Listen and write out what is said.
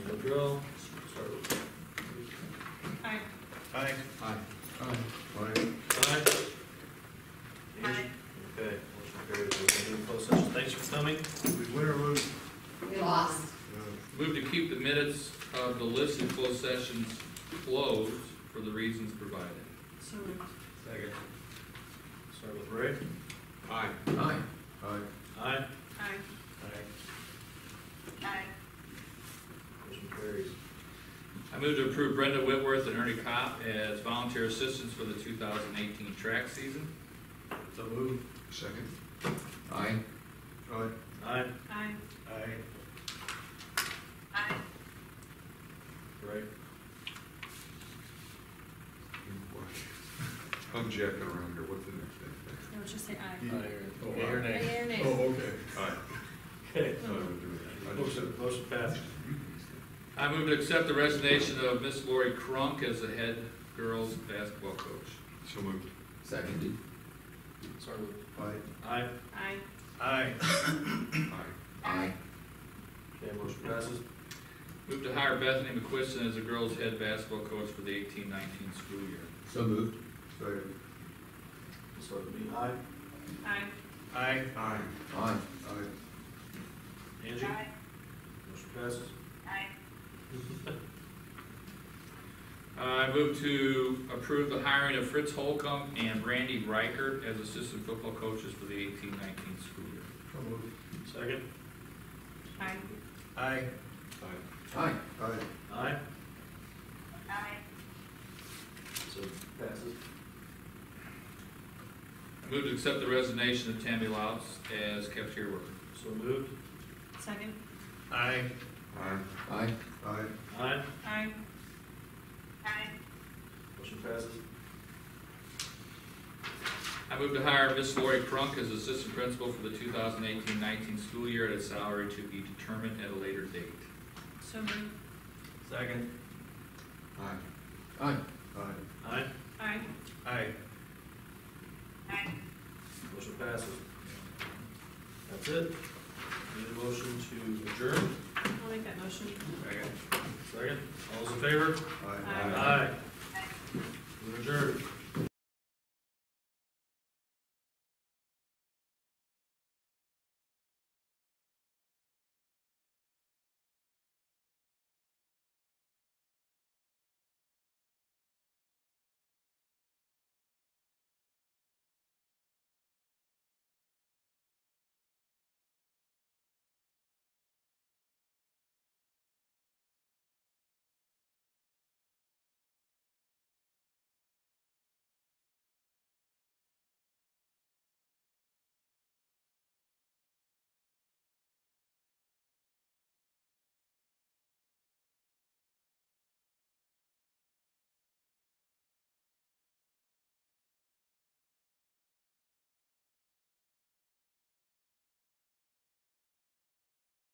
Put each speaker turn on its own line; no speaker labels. drill, start with.
Aye.
Aye.
Aye.
Aye.
Aye.
Aye.
Okay, motion carries, we're gonna do a closed session, thanks for coming.
We win or lose?
We lost.
Move to keep the minutes of the listed closed sessions closed for the reasons provided.
So moved.
Second.
Start with Ray.
Aye.
Aye.
Aye.
Aye.
Aye.
Aye.
Aye.
Motion carries.
I move to approve Brenda Whitworth and Ernie Kopp as volunteer assistants for the two thousand eighteen track season.
So moved.
Second?
Aye.
Aye.
Aye.
Aye.
Aye.
Aye.
Ray.
I'm jacking around here, what's the next thing?
No, just say aye.
Yeah.
Okay, Your name.
Aye, your name.
Oh, okay. Aye.
Okay.
I would do it. I just
Motion,
said-
motion passed.
I move to accept the resignation of Miss Lori Crunk as the head girls basketball coach.
So moved.
Seconded.
Sorry.
Aye.
Aye.
Aye.
Aye.
Aye.
Aye.
Okay, motion passes.
Move to hire Bethany McQuiston as the girls head basketball coach for the eighteen nineteen school year.
So moved.
Second?
Start with me. Aye.
Aye.
Aye.
Aye.
Aye.
Aye.
Angie. Motion passes.
Aye.
I move to approve the hiring of Fritz Holcomb and Randy Reichert as assistant football coaches for the eighteen nineteen school year.
So moved. Second.
Aye.
Aye.
Aye.
Aye.
Aye.
Aye.
So passes.
I move to accept the resignation of Tammy Louts as cafeteria worker.
So moved.
Second.
Aye.
Aye.
Aye.
Aye.
Aye.
Aye. Aye.
Motion passes.
I move to hire Miss Lori Crunk as assistant principal for the 2018-19 school year at a salary to be determined at a later date.
So moved.
Second.
Aye.
Aye.
Aye.
Aye.
Aye.
Aye.
Aye.
Motion passes. That's it. Need a motion to adjourn?
I'll make that motion.
Second. Second. All those in favor?
Aye.
Aye.
We're adjourned.